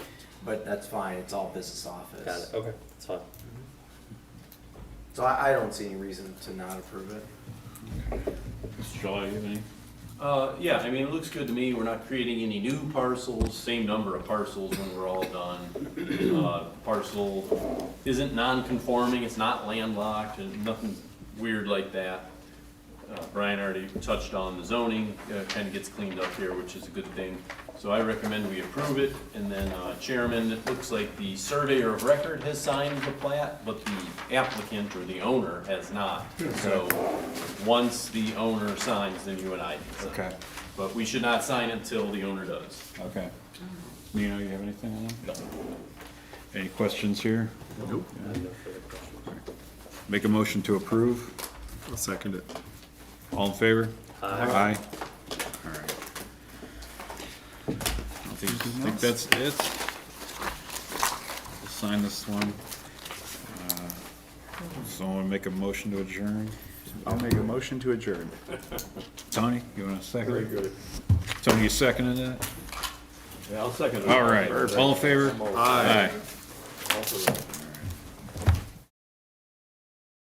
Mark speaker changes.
Speaker 1: but that's fine, it's all business office.
Speaker 2: Got it, okay, that's fine.
Speaker 1: Mhm. So I, I don't see any reason to not approve it.
Speaker 3: Mr. Shaw, you have any?
Speaker 4: Uh, yeah, I mean, it looks good to me. We're not creating any new parcels, same number of parcels when we're all done. Uh, Parcel isn't non-conforming, it's not landlocked, and nothing weird like that. Uh, Brian already touched on the zoning, kind of gets cleaned up here, which is a good thing. So I recommend we approve it, and then uh, Chairman, it looks like the surveyor of record has signed the plat, but the applicant or the owner has not. So, once the owner signs, then you and I can sign.
Speaker 3: Okay.
Speaker 4: But we should not sign until the owner does.
Speaker 3: Okay. Nino, you have anything on that? Any questions here? Nope. Make a motion to approve.
Speaker 5: I'll second it.
Speaker 3: All in favor?
Speaker 2: Aye.
Speaker 3: All right. I think, think that's it. We'll Sign this one. Uh, Someone make a motion to adjourn?
Speaker 5: I'll make a motion to adjourn.
Speaker 3: Tony, you want to second? Very good. Tony, you seconding that?
Speaker 4: Yeah, I'll second
Speaker 3: All right, all in favor? Aye.
Speaker 5: Aye.
Speaker 3: Aye.